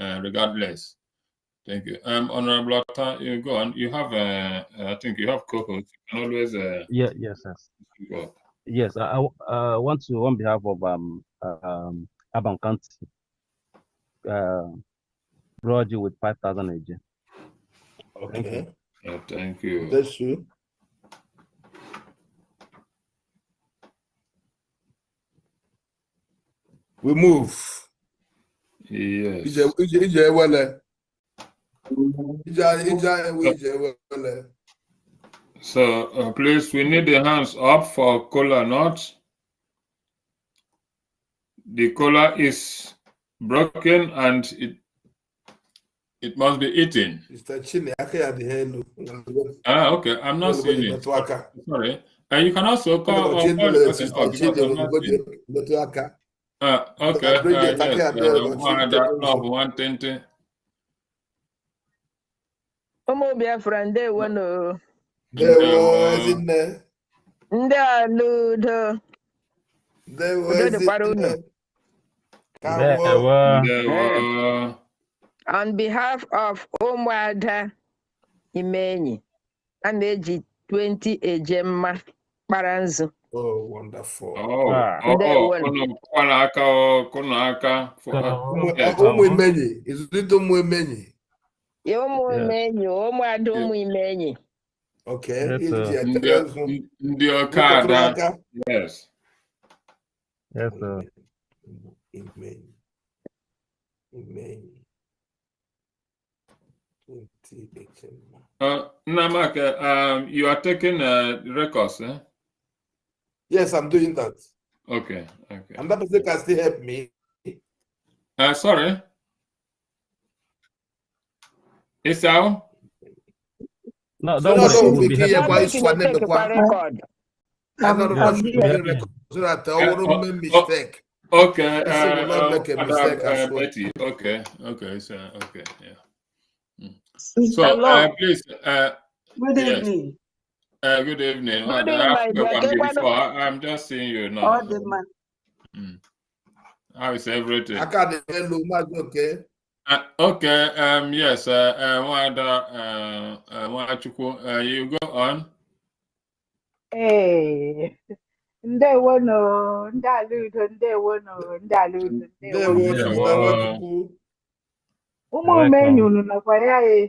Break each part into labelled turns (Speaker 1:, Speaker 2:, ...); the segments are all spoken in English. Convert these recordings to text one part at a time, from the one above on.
Speaker 1: uh, regardless. Thank you. Um, Honorable Atta, you go on. You have, uh, I think you have co-hosts. You can always uh,
Speaker 2: Yeah, yes, yes.
Speaker 1: go up.
Speaker 2: Yes, I, I w- uh, want to, on behalf of um, uh, um, Aban County, uh, reward you with 5,000 AJ.
Speaker 3: Okay,
Speaker 1: Uh, thank you.
Speaker 3: that's true. We move.
Speaker 1: Yes.
Speaker 3: Ije ije ije ewele. Ije ije ewe ije ewele.
Speaker 1: So uh, please, we need the hands up for Kola North. The cola is broken and it it must be eaten.
Speaker 3: Mr. Chine aka ya dị ha elu.
Speaker 1: Ah, okay. I'm not seeing it.
Speaker 3: Metụ aka.
Speaker 1: Sorry. And you can also call.
Speaker 3: Mr.
Speaker 1: on
Speaker 3: Chine
Speaker 1: call
Speaker 3: lere
Speaker 1: person.
Speaker 3: Mr.
Speaker 1: Oh, because
Speaker 3: Chine
Speaker 1: I'm not
Speaker 3: olugbodi
Speaker 1: seeing it.
Speaker 3: metụ aka.
Speaker 1: Ah, okay.
Speaker 3: Mr.
Speaker 1: Uh,
Speaker 3: Bridget, I
Speaker 1: yes.
Speaker 3: can't hear
Speaker 1: Uh,
Speaker 3: what
Speaker 1: one
Speaker 3: you
Speaker 1: hundred
Speaker 3: tell
Speaker 1: of
Speaker 3: me.
Speaker 1: one twenty.
Speaker 4: ụmụ biafra ndewo nụ
Speaker 3: Ndewo ezinne.
Speaker 4: ndị a n'udo
Speaker 3: Ndewo
Speaker 4: Udo dịkwara unu.
Speaker 3: ezinne. Ka
Speaker 2: There
Speaker 3: awọ.
Speaker 2: were-
Speaker 1: There were
Speaker 4: on behalf of ụmụada imenyi a na-eji 20 ejemma kpara nzu
Speaker 3: Oh, wonderful.
Speaker 1: oh
Speaker 2: Ah.
Speaker 1: oh
Speaker 4: There
Speaker 1: oh.
Speaker 4: were-
Speaker 1: Kono kola aka oh kono aka for. Uh,
Speaker 3: Ụmụ-
Speaker 1: yes.
Speaker 3: Ụmụ imenyi, ịzụlite ụmụ imenyi.
Speaker 4: Ya ụmụ
Speaker 2: Yeah.
Speaker 4: imenyi ụmụada ụmụ imenyi
Speaker 3: Okay.
Speaker 2: Yes,
Speaker 3: iji
Speaker 2: sir.
Speaker 3: etere nzu.
Speaker 1: Ndị ndị ọka
Speaker 3: Metụrụ
Speaker 1: ada.
Speaker 3: aka.
Speaker 1: Yes.
Speaker 2: Yes, sir.
Speaker 3: Amen. Amen. Twenty December.
Speaker 1: Uh, Namaka, um, you are taking uh, records, eh?
Speaker 3: Yes, I'm doing that.
Speaker 1: Okay, okay.
Speaker 3: And that person can still help me.
Speaker 1: Uh, sorry. Esau?
Speaker 2: No,
Speaker 3: So
Speaker 2: don't
Speaker 3: now
Speaker 2: worry.
Speaker 3: don't
Speaker 2: We'll be
Speaker 3: be
Speaker 2: happy.
Speaker 3: here, boy.
Speaker 4: Nobody
Speaker 3: Swan,
Speaker 4: will take
Speaker 3: the
Speaker 4: kwa
Speaker 3: one.
Speaker 4: record.
Speaker 3: I don't
Speaker 2: Yeah.
Speaker 3: want to
Speaker 2: Yeah.
Speaker 3: make a record so that I
Speaker 1: Yeah,
Speaker 3: won't make
Speaker 1: oh, oh.
Speaker 3: mistake.
Speaker 1: Okay.
Speaker 3: This will
Speaker 1: uh,
Speaker 3: not make a
Speaker 1: uh,
Speaker 3: mistake
Speaker 1: Madam,
Speaker 3: as
Speaker 1: uh,
Speaker 3: well.
Speaker 1: Betty. Okay, okay, so, okay, yeah. Mm. So,
Speaker 5: Mr.
Speaker 1: uh,
Speaker 5: Lord,
Speaker 1: please, uh,
Speaker 5: good
Speaker 1: yes.
Speaker 5: evening.
Speaker 1: uh, good evening. Uh, I've
Speaker 4: Good evening, my dear.
Speaker 1: spoken
Speaker 4: Get one of-
Speaker 1: before. I, I'm just seeing you now.
Speaker 5: All the man,
Speaker 1: How is everything?
Speaker 3: I can't hello, Mazi, okay?
Speaker 1: Uh, okay, um, yes, uh, uh, Wada, uh, uh, Nwachukwu, uh, you go on.
Speaker 6: Ee,
Speaker 5: eh.
Speaker 6: ndewonu, ndị ala udo, ndewonu, ndị ala udo,
Speaker 3: There
Speaker 6: ndewonu.
Speaker 3: was
Speaker 1: Yeah,
Speaker 3: another
Speaker 1: well,
Speaker 3: people.
Speaker 6: Ụmụ omenye unu nọkwara ya e,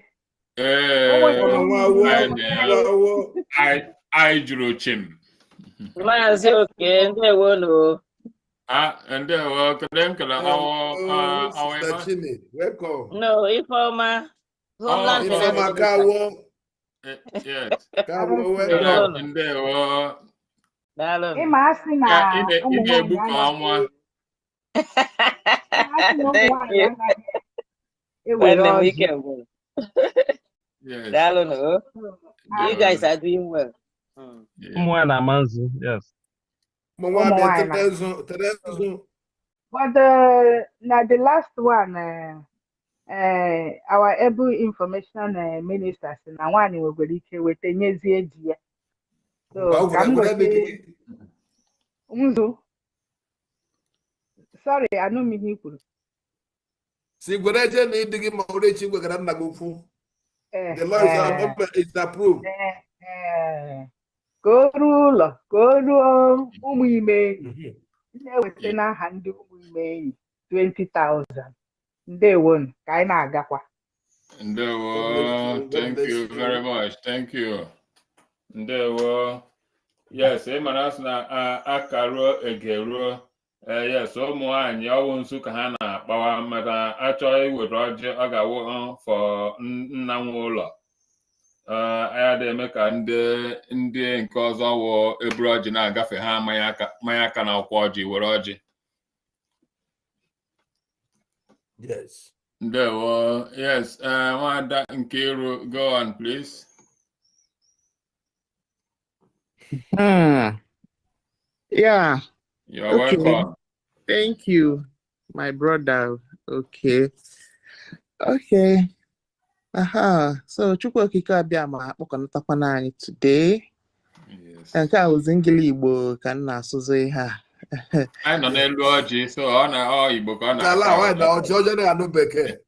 Speaker 6: ee?
Speaker 1: Eh,
Speaker 4: Oh,
Speaker 3: Ọnụ nwa awọ,
Speaker 1: I
Speaker 3: ọnụ nwa awọ.
Speaker 1: I I jụrụ chim.
Speaker 7: Maazị Oke, ndewo nụ.
Speaker 1: Ah, and there were Kadenkala,
Speaker 3: Oh,
Speaker 1: our, uh, our,
Speaker 3: Sister
Speaker 1: Emma.
Speaker 3: Chini, welcome.
Speaker 7: No, Ifeọma.
Speaker 1: Oh,
Speaker 7: Homeland
Speaker 1: Ifeọma
Speaker 3: Ah, Ifeoma
Speaker 7: Secretary.
Speaker 3: ka awọ,
Speaker 1: Eh, yes. uh,
Speaker 3: ka awọ,
Speaker 1: Good
Speaker 3: welcome.
Speaker 7: Hello.
Speaker 1: afternoon, oh.
Speaker 7: Daalụ nụ.
Speaker 6: Ịma asị na
Speaker 1: Ka ị
Speaker 4: Ah, oh,
Speaker 1: na- ị
Speaker 6: ụmụ nwaanyị
Speaker 1: na-egbu ka
Speaker 6: anaghị-
Speaker 1: ọnwa.
Speaker 6: ịma asị na ụmụ
Speaker 7: Thank
Speaker 6: nwaanyị
Speaker 7: you.
Speaker 6: anaghị e, ewere
Speaker 7: Nwanne m
Speaker 6: ọjị.
Speaker 7: ike gwụrụ.
Speaker 1: Yes.
Speaker 7: Daalụ nụ. You guys
Speaker 1: Yeah.
Speaker 7: are doing well. Mm.
Speaker 1: Yeah.
Speaker 2: Someone a man's, yes.
Speaker 3: Ụmụ nwaanyị
Speaker 6: Ụmụ nwaanyị.
Speaker 3: tere nzu, tere nzu.
Speaker 6: But uh, na the last one, uh, uh, our able information uh, minister sị na nwaanyị nwegwara ike weta nyezie ji ya. So
Speaker 3: Mgbe ọ
Speaker 6: ka
Speaker 3: gwara-
Speaker 6: m
Speaker 3: gwara dị
Speaker 6: gote
Speaker 3: gị-
Speaker 6: nzu. Sorry, anụ m ihe i kwuru.
Speaker 3: si gwere je na ịdị gị ma ọrụ echi gwegara nna gị ukwu.
Speaker 6: Eh,
Speaker 3: The law is
Speaker 6: eh.
Speaker 3: approved, is approved.
Speaker 6: Ee, ka o ruo ụlọ ka o ruo ụmụ ime enyi na-eweta n'aha ndị ụmụ ime enyi 20,000 ndewonu ka anyị na-agakwa
Speaker 1: And there
Speaker 3: God
Speaker 1: were,
Speaker 3: bless
Speaker 1: thank you
Speaker 3: you, God bless
Speaker 1: very
Speaker 3: you.
Speaker 1: much. Thank you. And there were, yes, Emanas na Akaro Egero. Uh, yes, ụmụ nwanyị ọwụ nsu ka ha na-akpawa maka achọghị iwere ọjị ọ ga-awụ uh, for n- nna nwe ụlọ. Eh, ya na-eme ka ndị ndị nke ọzọ wụ eburu ọjị na-agafe ha manya aka manya aka na akwụkwọ ọjị were ọjị
Speaker 3: Yes.
Speaker 1: ndewo yes eh, nwada Nkiru go on please
Speaker 8: Hmm. Yeah,
Speaker 1: you're
Speaker 8: Okay.
Speaker 1: welcome
Speaker 8: thank you, my brother. Okay. Okay. Aha. So Chukwu okike abịama akpọkọnatakwana anyị today.
Speaker 1: Yes.
Speaker 8: Nke a wụzi ngili Igbo ka m na-asụzụ ihe a.
Speaker 1: anyị nọ n'elu ọjị so ọ na ọ igbo ka ọ
Speaker 3: Ka ala
Speaker 1: na-akọ
Speaker 3: nwaanyị na ọchị ọjọọ na-anụ bekee.